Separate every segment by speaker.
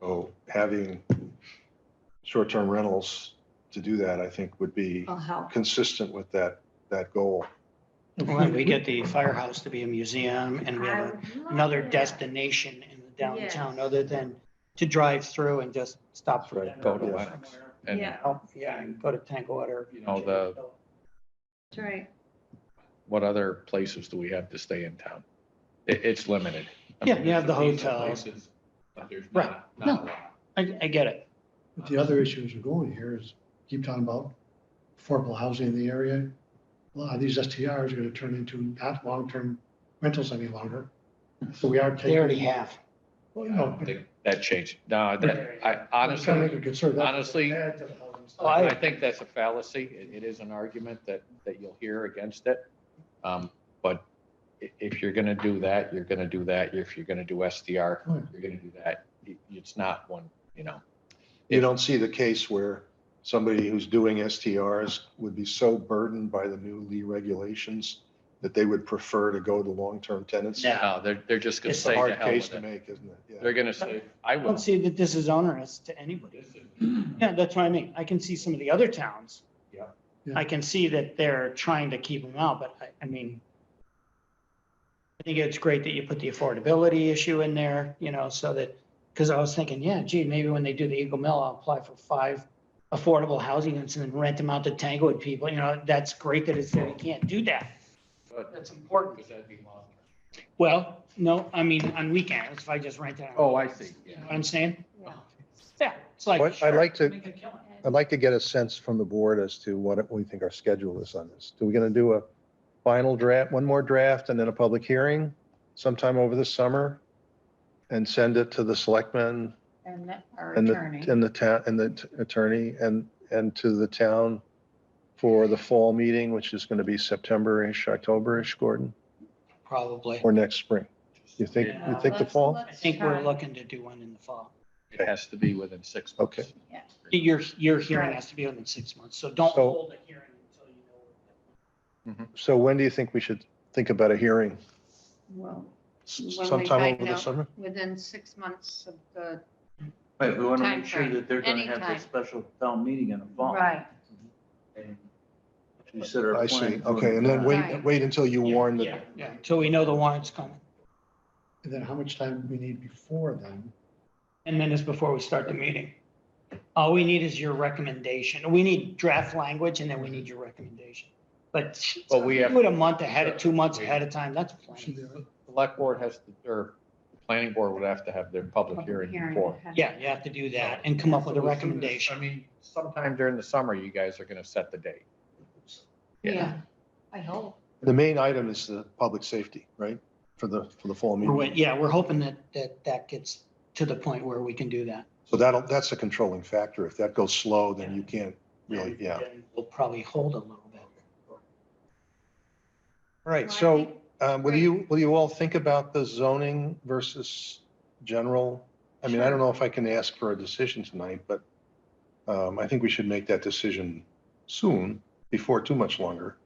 Speaker 1: So having short-term rentals to do that, I think, would be
Speaker 2: will help.
Speaker 1: consistent with that, that goal.
Speaker 3: When we get the firehouse to be a museum and we have a- another destination in the downtown
Speaker 2: Yes.
Speaker 3: other than to drive through and just stop for
Speaker 1: Right,
Speaker 3: dinner.
Speaker 4: go to
Speaker 3: or
Speaker 4: Lenox.
Speaker 3: somewhere.
Speaker 4: And,
Speaker 2: Yeah,
Speaker 3: Oh, yeah, and go to Tankwater.
Speaker 4: you know, the,
Speaker 2: that's right.
Speaker 4: what other places do we have to stay in town? It, it's limited. I
Speaker 3: Yeah,
Speaker 4: mean,
Speaker 3: you have the
Speaker 4: there's a piece of
Speaker 3: hotels.
Speaker 4: places, but there's
Speaker 3: Right.
Speaker 4: not- not a lot.
Speaker 3: I, I get it.
Speaker 5: But the other issues we're going here is keep talking about affordable housing in the area. A lot of these STRs are gonna turn into not long-term rentals any longer. So we are
Speaker 3: They already
Speaker 5: taking.
Speaker 3: have.
Speaker 5: Well,
Speaker 4: I
Speaker 5: you know,
Speaker 4: don't think That changed. No, that, I
Speaker 5: I'm just trying to
Speaker 4: honestly,
Speaker 5: make a concern. That's-
Speaker 4: honestly,
Speaker 5: add to the housing stock.
Speaker 3: Oh, I-
Speaker 4: I think that's a fallacy. It, it is an argument that, that you'll hear against it. Um, but i- if you're gonna do that, you're gonna do that. If you're gonna do SDR,
Speaker 5: Right.
Speaker 4: you're gonna do that. It- It's not one, you know.
Speaker 1: You don't see the case where somebody who's doing STRs would be so burdened by the new Lee regulations that they would prefer to go to long-term tenants.
Speaker 3: No.
Speaker 4: No, they're, they're just gonna
Speaker 3: It's
Speaker 1: It's a
Speaker 3: a
Speaker 4: say to
Speaker 1: hard
Speaker 4: hell
Speaker 1: case
Speaker 4: with
Speaker 1: to
Speaker 4: it.
Speaker 1: make, isn't it?
Speaker 4: They're gonna say, I
Speaker 3: I
Speaker 4: will.
Speaker 3: don't see that this is onerous to anybody.
Speaker 4: This is-
Speaker 3: Yeah, that's what I mean. I can see some of the other towns.
Speaker 4: Yeah.
Speaker 3: I can see that they're trying to keep them out, but I, I mean, I think it's great that you put the affordability issue in there, you know, so that, because I was thinking, yeah, gee, maybe when they do the Eagle Mill, I'll apply for five affordable housing units and then rent them out to Tanglewood people, you know, that's great that it's, that you can't do that.
Speaker 4: But-
Speaker 3: That's important.
Speaker 4: Because that'd be long.
Speaker 3: Well, no, I mean, on weekends, if I just rent it out.
Speaker 4: Oh, I see,
Speaker 3: You
Speaker 4: yeah.
Speaker 3: know what I'm saying?
Speaker 2: Yeah.
Speaker 3: Yeah, it's like.
Speaker 1: What I'd
Speaker 3: sure,
Speaker 1: like to-
Speaker 3: make a killing.
Speaker 1: I'd like to get a sense from the board as to what we think our schedule is on this. Do we going to do a final draft, one more draft, and then a public hearing sometime over the summer? And send it to the selectmen
Speaker 2: And that- our
Speaker 1: and the,
Speaker 2: attorney.
Speaker 1: and the town, and the t- attorney, and, and to the town for the fall meeting, which is going to be September-ish, October-ish, Gordon,
Speaker 3: Probably.
Speaker 1: or next spring? You think,
Speaker 3: Yeah.
Speaker 1: you think the fall?
Speaker 3: I think we're looking to do one in the fall.
Speaker 4: It has to be within six months.
Speaker 1: Okay.
Speaker 2: Yeah.
Speaker 3: Your, your hearing
Speaker 2: Right.
Speaker 3: has to be within six months, so don't
Speaker 1: So-
Speaker 3: hold a hearing until you know.
Speaker 1: So when do you think we should think about a hearing?
Speaker 2: Well,
Speaker 1: S-
Speaker 2: When we
Speaker 1: Sometime
Speaker 2: find
Speaker 1: over the
Speaker 2: out.
Speaker 1: summer?
Speaker 2: within six months of the,
Speaker 6: Right, we want to make sure
Speaker 2: Timeframe,
Speaker 6: that they're going to have
Speaker 2: anytime.
Speaker 6: this special town meeting in the fall.
Speaker 2: right,
Speaker 6: and Consider.
Speaker 1: I see,
Speaker 6: applying for
Speaker 1: okay, and then wait,
Speaker 2: Right.
Speaker 1: wait until you warn the
Speaker 3: Yeah, yeah, until we know the warrant's coming,
Speaker 5: And then how much time we need before then?
Speaker 3: and then it's before we start the meeting. All we need is your recommendation, we need draft language, and then we need your recommendation. But
Speaker 4: But we have,
Speaker 3: do it a month ahead of, two months ahead of time, that's
Speaker 5: Should
Speaker 3: plenty.
Speaker 5: there-
Speaker 4: select board has to, or the planning board would have to have their public hearing
Speaker 2: hearing.
Speaker 4: before.
Speaker 3: Yeah, you have to do that and come up with a
Speaker 4: I
Speaker 3: recommendation.
Speaker 4: mean, sometime during the summer, you guys are gonna set the date.
Speaker 2: Yeah, I hope.
Speaker 1: The main item is the public safety, right? For the, for the fall
Speaker 3: We're wait-
Speaker 1: meeting.
Speaker 3: Yeah, we're hoping that, that that gets to the point where we can do that.
Speaker 1: So that'll, that's a controlling factor. If that goes slow, then you can't really,
Speaker 3: And
Speaker 1: yeah.
Speaker 3: then We'll probably hold a little bit.
Speaker 1: All right,
Speaker 2: Well, I
Speaker 1: so
Speaker 2: think-
Speaker 1: um, will you, will you all think about the zoning versus general? I mean, I don't know if I can ask for a decision tonight, but um, I think we should make that decision soon, before too much longer.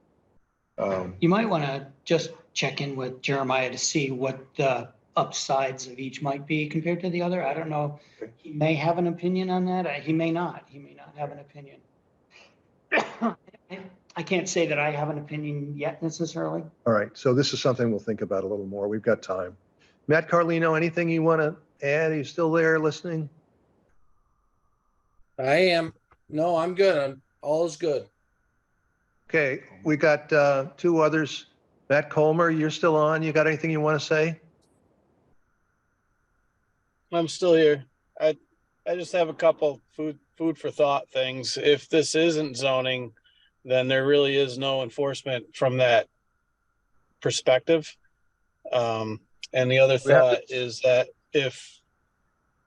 Speaker 1: Um,
Speaker 3: You might want to just check in with Jeremiah to see what the upsides of each might be compared to the other. I don't know.
Speaker 1: Okay.
Speaker 3: He may have an opinion on that. uh, He may not. He may not have an opinion. I can't say that I have an opinion yet necessarily.
Speaker 1: All right, so this is something we'll think about a little more. We've got time. Matt Carlino, anything you want to add? Are you still there listening?
Speaker 7: I am. No, I'm good. I'm all is good.
Speaker 1: Okay, we got uh, two others. Matt Colmer, you're still on. You got anything you want to say?
Speaker 8: I'm still here. I, I just have a couple food, food for thought things. If this isn't zoning, then there really is no enforcement from that perspective. Um, and the other
Speaker 1: We have to-
Speaker 8: thought is that if,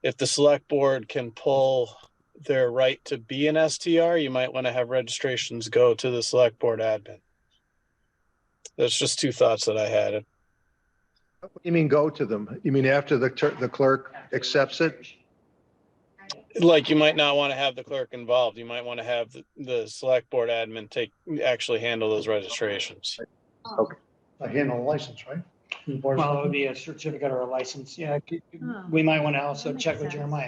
Speaker 8: if the select board can pull their right to be an STR, you might want to have registrations go to the select board admin. That's just two thoughts that I had.
Speaker 1: You mean go to them? You mean after the tur- the clerk accepts it?
Speaker 8: like you might not want to have the clerk involved. You might want to have the, the select board admin take, actually handle those registrations.
Speaker 2: oh,
Speaker 5: I handle the license, right? The board's-
Speaker 3: Well, it would be a certificate or a license. Yeah. c-
Speaker 2: Oh.
Speaker 3: We might want to also
Speaker 2: That
Speaker 3: check
Speaker 2: makes
Speaker 3: with
Speaker 2: sense.
Speaker 3: Jeremiah.